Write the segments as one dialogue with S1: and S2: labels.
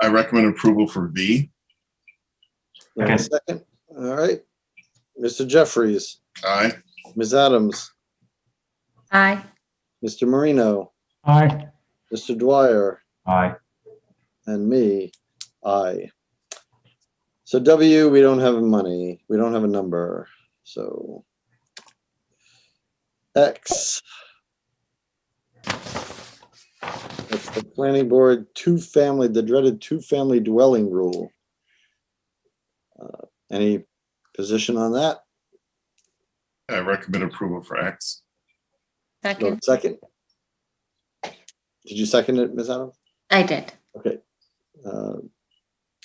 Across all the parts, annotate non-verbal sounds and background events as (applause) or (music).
S1: I recommend approval for V.
S2: Do I have a
S3: Second.
S2: Second. All right. Mr. Jeffries,
S1: Aye.
S2: Ms. Adams,
S4: Aye.
S2: Mr. Marino,
S3: Aye.
S2: Mr. Dwyer,
S3: Aye.
S2: and me, I. So W, we don't have money. We don't have a number, so. X. That's the planning board two-family, the dreaded two-family dwelling rule. Uh, Any position on that?
S1: I recommend approval for X.
S2: Do I have
S4: Second.
S2: a Second. Did you second it, Ms. Adams?
S4: I did.
S2: Okay. Uh,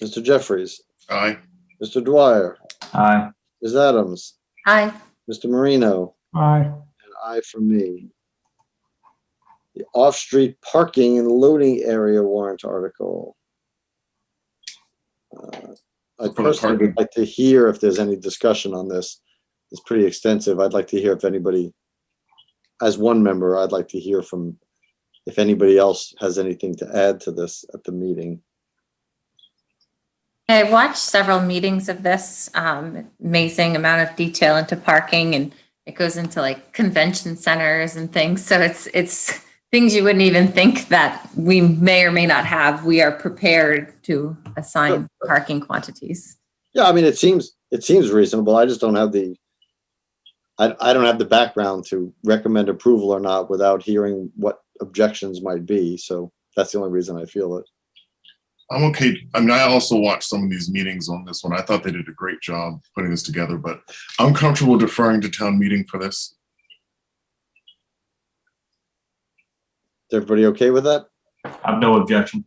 S2: Mr. Jeffries,
S1: Aye.
S2: Mr. Dwyer,
S3: Aye.
S2: Ms. Adams,
S4: Aye.
S2: Mr. Marino,
S3: Aye.
S2: and I for me. The off-street parking and loading area warrant article. Uh,
S1: For
S2: I
S1: the
S2: personally
S1: parking.
S2: would like to hear if there's any discussion on this. It's pretty extensive. I'd like to hear if anybody, as one member, I'd like to hear from if anybody else has anything to add to this at the meeting.
S4: I watched several meetings of this, um, amazing amount of detail into parking and it goes into like convention centers and things. So it's, it's things you wouldn't even think that we may or may not have. We are prepared to assign parking quantities.
S2: Yeah, I mean, it seems, it seems reasonable. I just don't have the, I, I don't have the background to recommend approval or not without hearing what objections might be. So that's the only reason I feel it.
S1: I'm okay. I mean, I also watched some of these meetings on this one. I thought they did a great job putting this together, but I'm comfortable deferring to town meeting for this.
S2: Is everybody okay with that?
S3: I have no objection.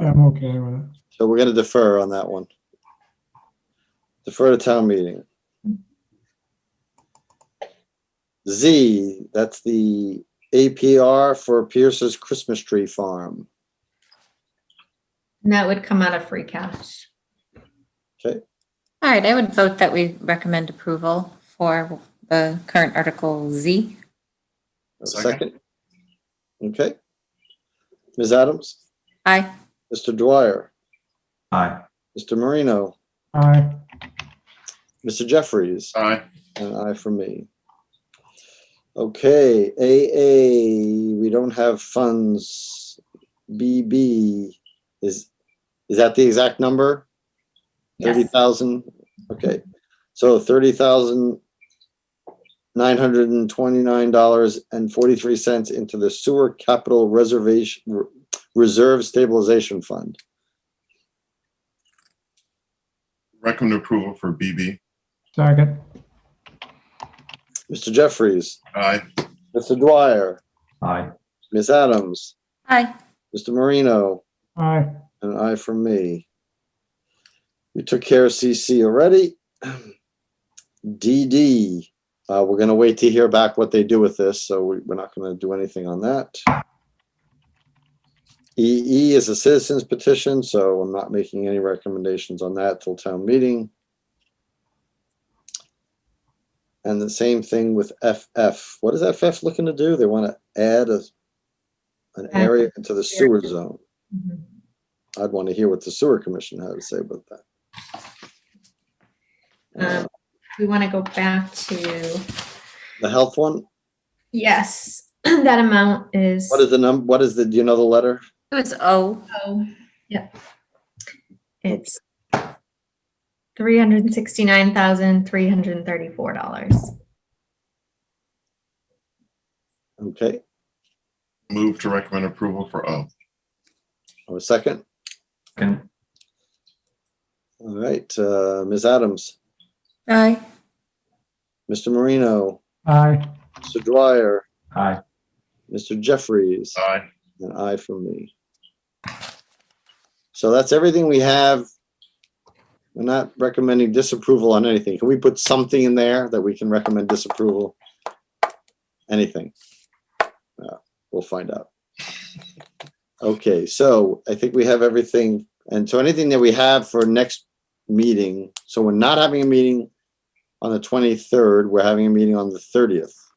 S5: I'm okay with it.
S2: So we're gonna defer on that one. Defer to town meeting. Z, that's the APR for Pierce's Christmas Tree Farm.
S6: And that would come out of free cash.
S4: All right. I would vote that we recommend approval for the current Article Z.
S1: Second.
S2: Second? Okay. Ms. Adams?
S4: Aye.
S2: Mr. Dwyer,
S3: Aye.
S2: Mr. Marino,
S5: Aye,
S2: Mr. Jeffries,
S1: Aye.
S2: and I for me. Okay, AA, we don't have funds. BB is, is that the exact number? Thirty
S4: Yes.
S2: thousand, okay, so thirty thousand nine hundred and twenty-nine dollars and forty-three cents into the sewer capital reservation, Re- reserve stabilization fund.
S1: Recommend approval for BB.
S5: second,
S2: Mr. Jeffries,
S1: Aye.
S2: Mr. Dwyer,
S3: Aye.
S2: Ms. Adams,
S4: Aye.
S2: Mr. Marino,
S5: aye,
S2: an aye from me. We took care of CC already. (clears throat) DD, uh, we're gonna wait to hear back what they do with this, so we- we're not gonna do anything on that. EE is a citizens petition, so I'm not making any recommendations on that till town meeting. And the same thing with FF. What is FF looking to do? They wanna add a an area into the sewer zone.
S6: Mm-hmm.
S2: I'd want to hear what the sewer commission had to say about that. Uh,
S6: Um, We want to go back to,
S2: The health one,
S6: yes, (clears throat) that amount is,
S2: what is the num, what is the, do you know the letter?
S4: It was O.
S6: oh, yeah. It's three hundred and sixty-nine thousand, three hundred and thirty-four dollars.
S2: Okay,
S1: Move to recommend approval for O.
S2: or a second?
S3: Second.
S2: All right, uh, Ms. Adams,
S4: Aye.
S2: Mr. Marino,
S5: aye,
S2: Mr. Dwyer,
S3: Aye.
S2: Mr. Jeffries,
S1: Aye.
S2: and I from me. So that's everything we have. We're not recommending disapproval on anything. Can we put something in there that we can recommend disapproval? Anything? Uh, We'll find out. Okay, so I think we have everything. And so anything that we have for next meeting, so we're not having a meeting on the 23rd, we're having a meeting on the 30th.